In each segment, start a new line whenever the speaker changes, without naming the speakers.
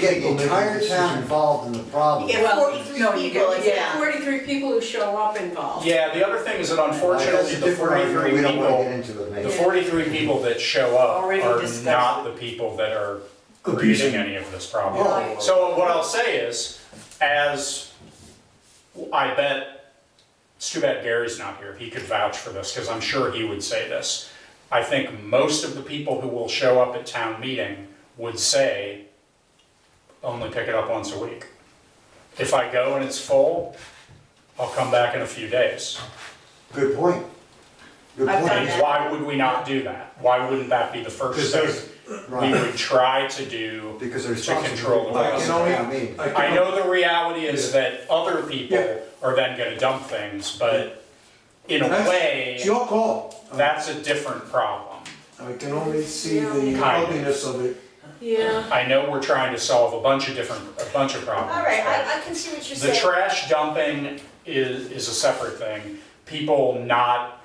get the
People make a
entire town
decision.
involved in the problem.
You get
Well,
forty-three
no, you
people,
get-
it's not
yeah.
forty-three people who show up involved.
Yeah, the other thing is that
Like, that's
unfortunately,
a
the
different argument,
forty-three
we don't wanna get
people,
into it,
the
maybe.
forty-three people that show up
Already
are
discussed
not
it.
the people that are creating
Abusing.
any of this
Right.
problem. So what I'll say is, as, I bet, it's too bad Gary's not here, he could vouch for this, because I'm sure he would say this. I think most of the people who will show up at town meeting would say, only pick it up once a week. If I go and it's full, I'll come back in a few days.
Good point. Good
I've
point.
done
And why would we not do that? Why wouldn't that be the first
Because
thing
there's,
we
Right,
would try to do?
because there's.
to control the
I
Well,
can
I
only,
mean,
I
I
can,
know the reality is that other
Yeah.
people are then gonna dump things, but in a
That's-
way,
it's your call.
that's a different problem.
I can only see the
Kind of.
ugliness of it.
Yeah.
I know we're trying to solve a bunch of different, a bunch of problems.
All right,
but-
I, I can see what you're
The
saying.
trash dumping is, is a separate thing. People not,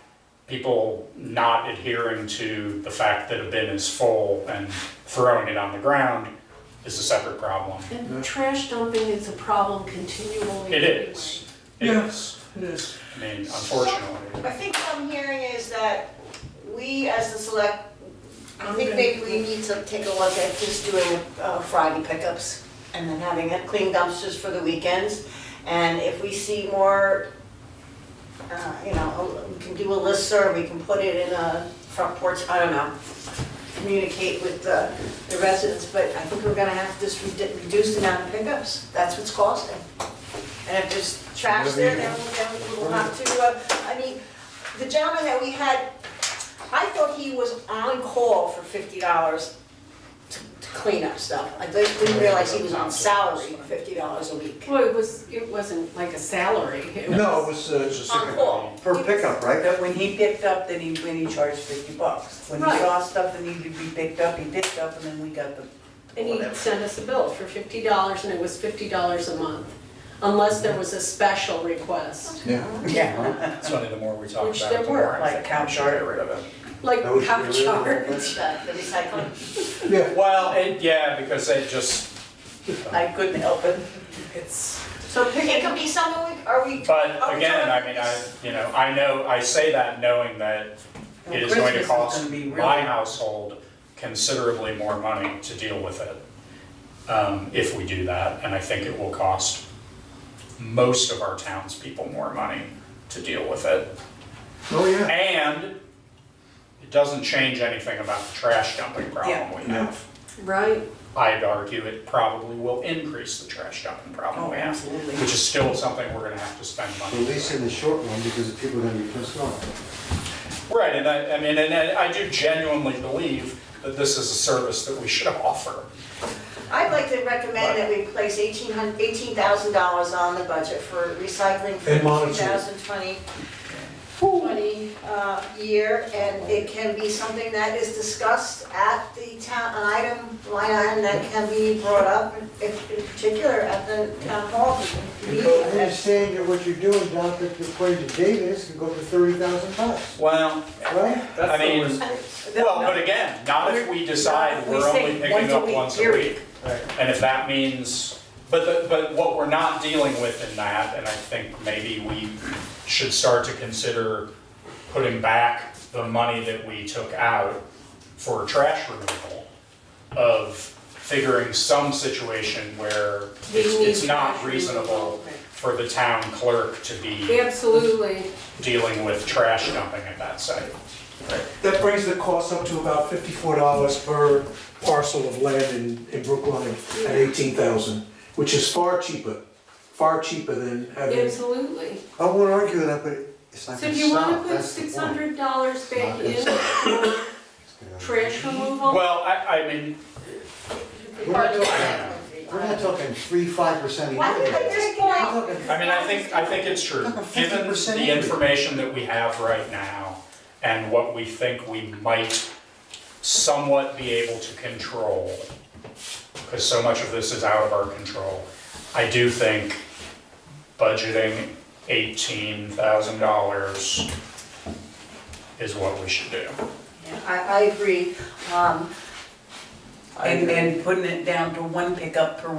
people not adhering to the fact that a bin is full and throwing it on the ground is a separate problem.
And trash dumping is a problem continually.
It is. It
Yeah.
is.
It is.
I mean, unfortunately.
I think what I'm hearing is that we as the select, I think maybe we need to take a look at just doing uh, Friday pickups and then having it clean dumpsters for the weekends. And if we see more, uh, you know, we can do a listserv, we can put it in a front porch, I don't know. Communicate with the the residents, but I think we're gonna have to just redu- reduce the amount of pickups, that's what's costing. And if there's trash there, then we'll- then we'll have to, uh, I mean, the gentleman that we had, I thought he was on call for fifty dollars to to clean up stuff. I didn't didn't realize he was on salary for fifty dollars a week.
Well, it was, it wasn't like a salary. It
No, it
was-
was, uh, it's a
On
second.
call.
Per pickup, right?
But when he picked up, then he, when he charged fifty bucks. When he
Right.
saw stuff that needed to be picked up, he picked up and then we got the
And he
whatever.
sent us a bill for fifty dollars and it was fifty dollars a month, unless there was a special request.
Yeah.
Yeah,
It's funny, the more we talk
Which
about
there
it, the more
were,
I
like
think
cow
we should
chart.
get rid of it.
Like
That was
half
really-
charge.
uh, The the recycling.
Yeah,
Well, it, yeah, because it just,
I couldn't help it. It's,
So
It could
picking,
be something, we- are we?
Oh,
are
but
we
again, I
talking-
mean, I, you know, I know, I say that knowing that it is going to
Christmas is
cost
gonna be really-
my household considerably more money to deal with it, um, if we do that, and I think it will cost most of our townspeople more money to deal with it.
oh yeah.
And it doesn't change anything about the trash dumping problem we
Yeah.
have.
right?
I'd argue it probably will increase the trash dumping problem
Oh,
we have,
absolutely.
which is still something we're gonna have to spend money
At least in the short run, because the people are gonna be pissed off.
Right, and I, I mean, and I I do genuinely believe that this is a service that we should offer.
I'd like to recommend that we place eighteen hundred, eighteen thousand dollars on the budget for recycling for
And
two
monitor.
thousand twenty twenty uh, year, and it can be something that is discussed at the town, an item, line item that can be brought up, in in particular at the town hall meeting.
Because I understand that what you're doing down at the equation Davis can go for thirty thousand bucks,
Well.
right?
I mean, well, but again, not if we decide
We
we're
say
only
once
picking
a
up
week,
once a
period.
week. And if that means, but the, but what we're not dealing with in that, and I think maybe we should start to consider putting back the money that we took out for trash removal of figuring some situation where
We
it's,
need
it's not
trash
reasonable
removal, right.
for the town clerk to be
Absolutely.
dealing with trash dumping at that site.
That brings the cost up to about fifty-four dollars per parcel of land in, in Brookline at eighteen thousand, which is far cheaper, far cheaper than having.
Absolutely.
I won't argue with that, but it's not
So
gonna
do you wanna
stop,
put
that's the point.
six hundred dollars back
It's
in for trash removal?
Well, I, I mean,
We're not talking- we're not talking three, five percent a year.
Why did they just point
We're
out?
talking
I mean, I think, I think it's true.
Like a 50%
Given the
increase.
information that we have right now and what we think we might somewhat be able to control, because so much of this is out of our control, I do think budgeting eighteen thousand dollars is what we should do.
I, I agree, um,
and, and putting it down to one pickup per